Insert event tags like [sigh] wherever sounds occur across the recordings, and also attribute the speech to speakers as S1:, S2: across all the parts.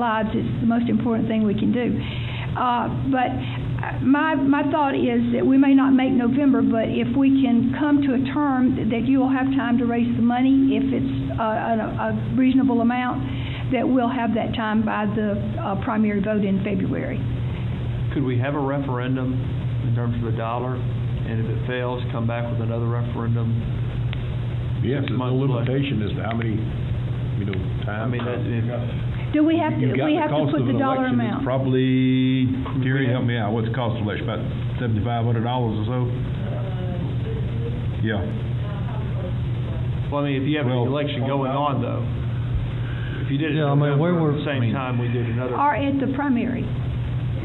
S1: lives, it's the most important thing we can do. Uh, But uh, my, my thought is that we may not make November, but if we can come to a term that you will have time to raise the money, if it's uh, a a reasonable amount, that we'll have that time by the uh, primary vote in February.
S2: Could we have a referendum in terms of the dollar? And if it fails, come back with another referendum?
S3: Yes, there's no
S2: Month left.
S3: limitation as to how many, you know,
S2: I
S3: times.
S2: mean, that- if-
S1: Do we have to,
S3: You've got
S1: we have to
S3: cost
S1: put
S3: of
S1: the
S3: an
S1: dollar
S3: election is
S1: amount?
S3: Probably, Gary,
S2: Yeah.
S3: help me out, what's the cost of election, about seventy-five hundred dollars or
S4: Uh,
S3: so? Yeah,
S2: well, I mean, if you have an
S3: Well-
S2: election going on, though, if you did it in
S5: Yeah, I mean, we
S2: November,
S5: were-
S2: at the
S5: I
S2: same
S5: mean-
S2: time we did another.
S1: Or at the primary?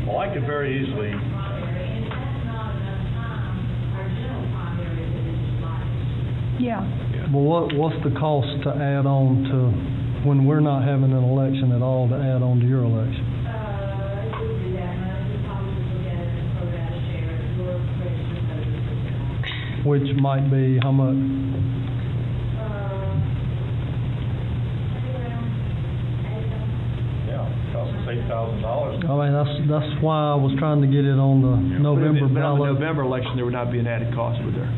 S4: Well, I could very easily,
S6: And that's not enough time, our general primary is in July.
S1: Yeah.
S5: Well, what, what's the cost to add on to, when we're not having an election at all, to add on to your election?
S6: Uh, it would be that much, we probably would get a program share, your question,
S5: Which might be how much?
S6: uh, around eight thousand.
S4: yeah, cost us eight thousand dollars.
S5: I mean, that's, that's why I was trying to get it on the
S2: But if it-
S5: November
S2: But on the
S5: ballot.
S2: November election, there would not be an added cost, would there?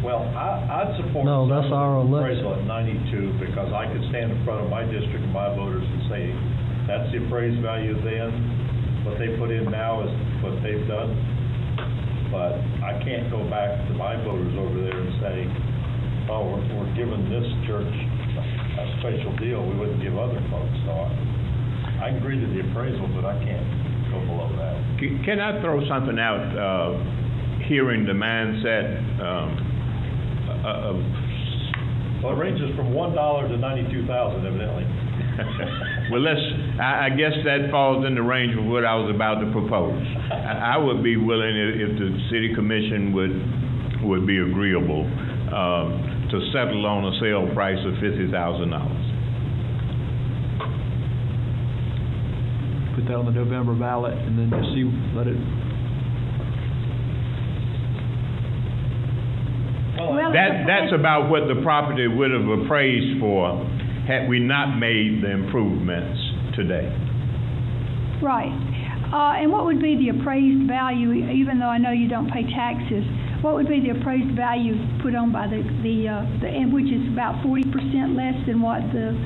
S4: Well, I, I'd support.
S5: No, that's our election.
S4: Appraisal at ninety-two, because I could stand in front of my district and my voters and say, that's the appraised value then, what they put in now is what they've done. But I can't go back to my voters over there and say, oh, we're, we're giving this church a special deal we wouldn't give other folks, so I, I agree to the appraisal, but I can't go below that.
S7: Can can I throw something out, uh, hearing the mindset um, o- of, uh,
S4: Well, it ranges from one dollar to ninety-two thousand evidently.
S7: [laughs] well, let's, I I guess that falls in the range of what I was about to propose. I I would be willing, i- if the city commission would, would be agreeable, um, to settle on a sale price of $50,000.
S2: Put that on the November ballot and then just see, let it,
S1: Well,
S7: That, that's about what the property would have appraised for had we not made the improvements today.
S1: Right. Uh, and what would be the appraised value, even though I know you don't pay taxes, what would be the appraised value put on by the, the, uh, the, and which is about forty percent less than what the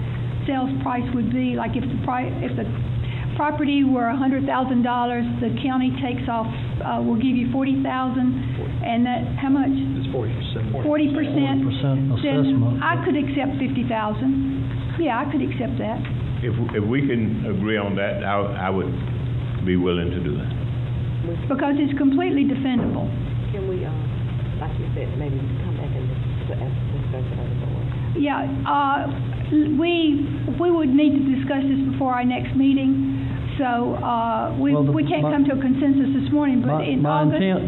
S1: sales price would be? Like if the pri, if the property were a hundred thousand dollars, the county takes off, uh, will give you forty thousand, and that, how much?
S2: it's forty percent.
S1: Forty percent?
S5: 40%
S1: Then
S5: assessment.
S1: I could accept fifty thousand. Yeah, I could accept that.
S7: If, if we can agree on that, I, I would be willing to do that.
S1: Because it's completely defendable.
S8: Can we, um, like you said, maybe come back and discuss discuss it other board?
S1: Yeah, uh, we, we would need to discuss this before our next meeting, so uh, we,
S5: Well, the-
S1: we can't
S5: my-
S1: come to a consensus this morning, but
S5: My,
S1: in
S5: my
S1: August.
S5: intent,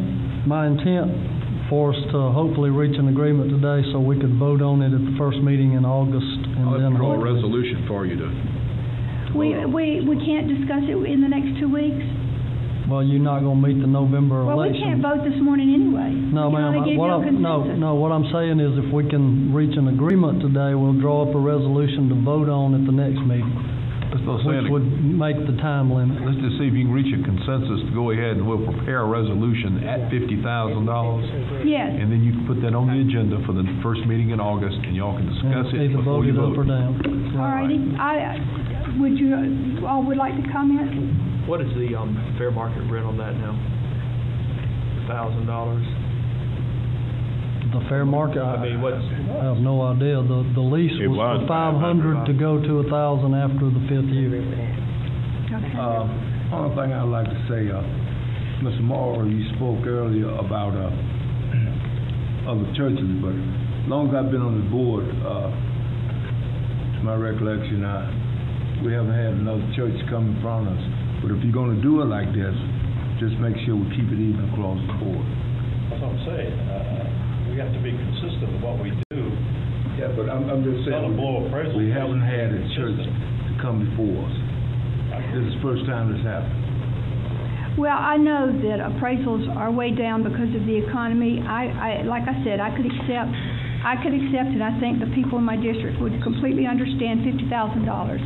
S5: my intent for us to hopefully reach an agreement today so we could vote on it at the first meeting in August and
S3: I'll have
S5: then.
S3: to draw a
S5: hopefully-
S3: resolution for you to,
S1: We, we, we can't discuss it in the next two weeks?
S5: Well, you're not gonna meet the November election.
S1: Well, we can't vote this morning anyway. We can
S5: No, ma'am,
S1: only
S5: I-
S1: get
S5: what
S1: to a
S5: I'm, no,
S1: consensus.
S5: no, what I'm saying is if we can reach an agreement today, we'll draw up a resolution to vote on at the next meeting,
S3: let's not say, anything.
S5: which would make the time limit.
S3: let's just see if you can reach a consensus to go ahead and we'll prepare a resolution at fifty thousand dollars.
S1: Yes,
S3: And then you can put that on the agenda for the first meeting in August and y'all can discuss it
S5: Either
S3: before
S5: vote
S3: you
S5: it up or
S3: vote.
S5: down.
S1: all righty. I, would you, you all would like to comment?
S2: What is the, um, fair market rent on that now? Thousand dollars?
S5: The fair market,
S2: I mean,
S5: I
S2: what's,
S5: I have no idea. The, the lease
S7: It
S5: was for
S7: was
S5: five
S7: 500.
S5: hundred to go to a thousand after the fifth year.
S1: Okay.
S9: Uh, Only thing I'd like to say, uh, Mr. Morrow, you spoke earlier about uh, [clears throat] other churches, but long as I've been on the board, uh, to my recollection, I, we haven't had another church come in front of us. But if you're gonna do it like this, just make sure we keep it even across the board.
S4: That's what I'm saying, uh, we have to be consistent with what we do.
S9: Yeah, but I'm, I'm just
S4: Not a blow appraisal.
S9: We haven't had a church to come before us. This is the first time this happened.
S1: Well, I know that appraisals are way down because of the economy. I, I, like I said, I could accept, I could accept, and I think the people in my district would completely understand fifty thousand dollars.